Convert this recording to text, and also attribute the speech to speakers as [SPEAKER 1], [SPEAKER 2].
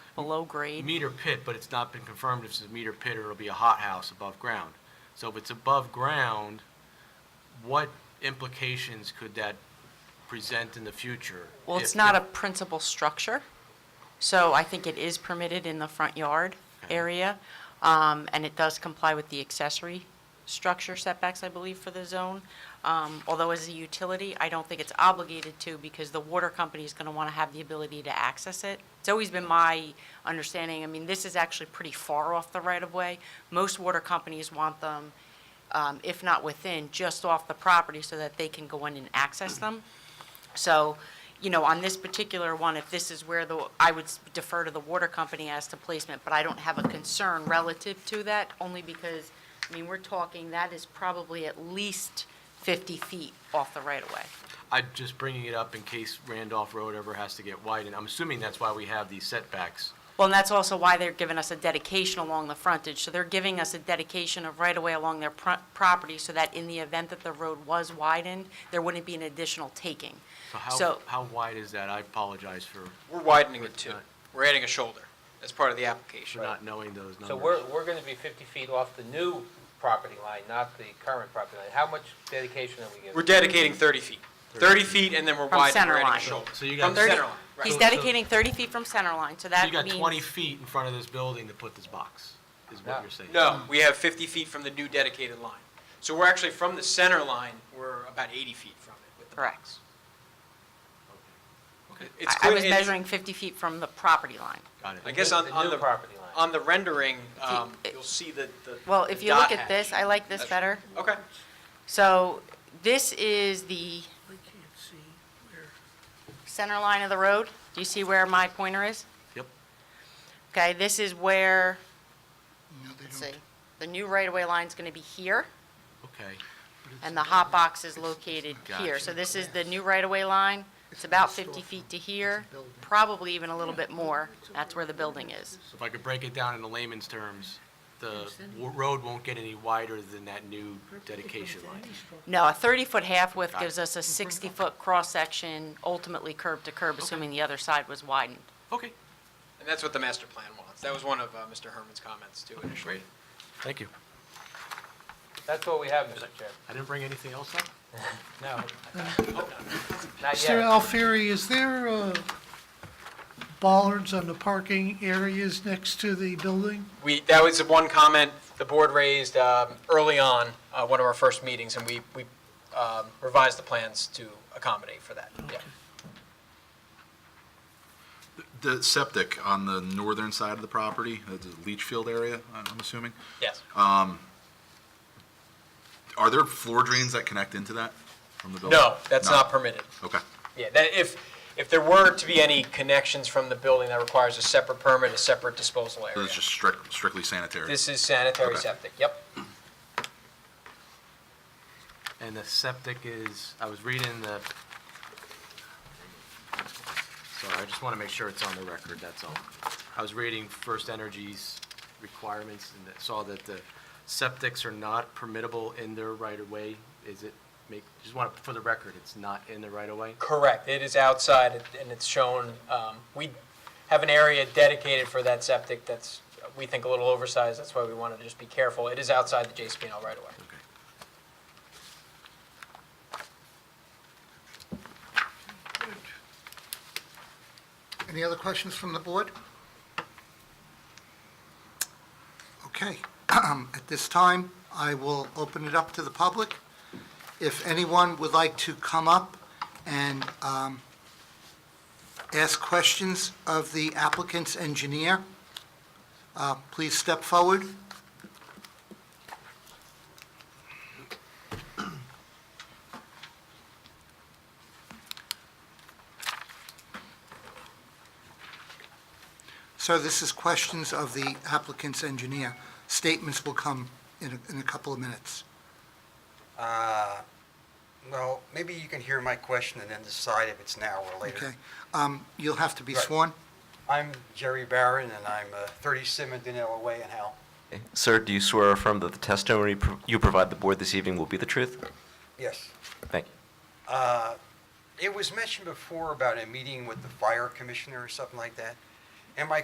[SPEAKER 1] below grade?
[SPEAKER 2] meter pit, but it's not been confirmed if it's a meter pit or it'll be a hothouse above ground. So if it's above ground, what implications could that present in the future?
[SPEAKER 1] Well, it's
[SPEAKER 2] if-
[SPEAKER 1] not a principal structure, so I think it is permitted in the front yard
[SPEAKER 2] Okay.
[SPEAKER 1] area, um, and it does comply with the accessory structure setbacks, I believe, for the zone. Um, Although as a utility, I don't think it's obligated to, because the water company is going to want to have the ability to access it. It's always been my understanding, I mean, this is actually pretty far off the right-of-way. Most water companies want them, um, if not within, just off the property, so that they can go in and access them. So, you know, on this particular one, if this is where the, I would defer to the water company as to placement, but I don't have a concern relative to that, only because, I mean, we're talking, that is probably at least 50 feet off the right-of-way.
[SPEAKER 2] I'm just bringing it up in case Randolph Road ever has to get widened. I'm assuming that's why we have these setbacks.
[SPEAKER 1] Well, and that's also why they're giving us a dedication along the frontage. So they're giving us a dedication of right-of-way along their pro- property so that in the event that the road was widened, there wouldn't be an additional taking.
[SPEAKER 2] So how,
[SPEAKER 1] So-
[SPEAKER 2] how wide is that? I apologize for
[SPEAKER 3] We're widening it too.
[SPEAKER 2] Right.
[SPEAKER 3] We're adding a shoulder as part of the application.
[SPEAKER 2] not knowing those numbers.
[SPEAKER 4] So we're, we're gonna be fifty feet off the new property line, not the current property line. How much dedication are we
[SPEAKER 3] We're
[SPEAKER 4] giving?
[SPEAKER 3] dedicating 30 feet. 30 feet, and then we're
[SPEAKER 1] From
[SPEAKER 3] widening,
[SPEAKER 1] center
[SPEAKER 3] we're adding a
[SPEAKER 1] line.
[SPEAKER 3] shoulder.
[SPEAKER 2] So you
[SPEAKER 3] From
[SPEAKER 2] got,
[SPEAKER 3] the
[SPEAKER 2] so
[SPEAKER 3] center line,
[SPEAKER 1] He's
[SPEAKER 3] right.
[SPEAKER 2] that-
[SPEAKER 1] dedicating 30 feet from center line, so that
[SPEAKER 2] you got
[SPEAKER 1] means-
[SPEAKER 2] 20 feet in front of this building to put this box, is what
[SPEAKER 4] Yeah.
[SPEAKER 2] you're saying?
[SPEAKER 3] No, we have 50 feet from the new dedicated line. So we're actually from the center line, we're about 80 feet from it with the
[SPEAKER 1] Correct.
[SPEAKER 3] box.
[SPEAKER 2] Okay,
[SPEAKER 3] It's
[SPEAKER 1] I I
[SPEAKER 3] clear-
[SPEAKER 1] was
[SPEAKER 3] it-
[SPEAKER 1] measuring 50 feet from the property line.
[SPEAKER 2] Got it.
[SPEAKER 3] I guess on,
[SPEAKER 4] The
[SPEAKER 3] on
[SPEAKER 4] new
[SPEAKER 3] the,
[SPEAKER 4] property line.
[SPEAKER 3] on the rendering, um,
[SPEAKER 1] it-
[SPEAKER 3] you'll see the, the.
[SPEAKER 1] Well,
[SPEAKER 3] the
[SPEAKER 1] if you look
[SPEAKER 3] dot
[SPEAKER 1] at this,
[SPEAKER 3] hash.
[SPEAKER 1] I like this
[SPEAKER 3] That's-
[SPEAKER 1] better.
[SPEAKER 3] Okay.
[SPEAKER 1] So this is the
[SPEAKER 5] I can't see where.
[SPEAKER 1] center line of the road. Do you see where my pointer is?
[SPEAKER 2] Yep.
[SPEAKER 1] Okay, this is where,
[SPEAKER 5] No, they
[SPEAKER 1] let's see, the new right-of-way line's going to be here,
[SPEAKER 2] Okay.
[SPEAKER 1] and the hot box is located here.
[SPEAKER 2] Gotcha.
[SPEAKER 1] So this is the new right-of-way line. It's about 50 feet to here, probably even a little bit more. That's where the building is.
[SPEAKER 2] So if I could break it down into layman's terms, the w- road won't get any wider than that new dedication line.
[SPEAKER 1] No, a 30-foot half width
[SPEAKER 2] Got it.
[SPEAKER 1] gives us a 60-foot cross-section, ultimately curb to curb, assuming the other side was widened.
[SPEAKER 2] Okay,
[SPEAKER 3] And that's what the master plan wants. That was one of uh, Mr. Herman's comments too initially.
[SPEAKER 2] great. Thank you.
[SPEAKER 4] That's what we have, Mr. Chair.
[SPEAKER 2] I didn't bring anything else up?
[SPEAKER 4] No. Not
[SPEAKER 5] Mr.
[SPEAKER 4] yet.
[SPEAKER 5] Alfieri, is there uh, bollards on the parking areas next to the building?
[SPEAKER 3] We, that was the one comment the board raised um, early on, uh, one of our first meetings, and we, we um, revised the plans to accommodate for that, yeah.
[SPEAKER 6] The septic on the northern side of the property, uh, the leach field area, I'm I'm assuming,
[SPEAKER 3] Yes.
[SPEAKER 6] are there floor drains that connect into that from the building?
[SPEAKER 3] No, that's not permitted.
[SPEAKER 6] Okay,
[SPEAKER 3] Yeah, that, if, if there were to be any connections from the building, that requires a separate permit, a separate disposal
[SPEAKER 6] so
[SPEAKER 3] area.
[SPEAKER 6] it's just strict- strictly sanitary.
[SPEAKER 3] This is sanitary
[SPEAKER 6] Okay.
[SPEAKER 3] septic, yep.
[SPEAKER 2] And the septic is, I was reading the, sorry, I just want to make sure it's on the record, that's all. I was reading First Energy's requirements and that- saw that the septics are not permittable in their right-of-way. Is it, make, just want, to for the record, it's not in the right-of-way?
[SPEAKER 3] Correct, it is outside and it's shown, um, we have an area dedicated for that septic that's, we think a little oversized, that's why we wanted to just be careful. It is outside the JCPenney right away.
[SPEAKER 7] Any other questions from the board? Okay, at this time, I will open it up to the public. If anyone would like to come up and um, ask questions of the applicant's engineer, uh, please step forward. So this is questions of the applicant's engineer. Statements will come in a- in a couple of minutes.
[SPEAKER 8] Uh, Well, maybe you can hear my question and then decide if it's now or later.
[SPEAKER 7] Okay. Um, You'll have to be
[SPEAKER 8] Right.
[SPEAKER 7] sworn.
[SPEAKER 8] I'm Jerry Barron, and I'm uh, 30 Simmondon, Way in Howell.
[SPEAKER 9] Sir, do you swear or affirm that the testimony pro- you provide the board this evening will be the truth?
[SPEAKER 8] Yes.
[SPEAKER 9] Thank you.
[SPEAKER 8] Uh, It was mentioned before about a meeting with the fire commissioner or something like that, and my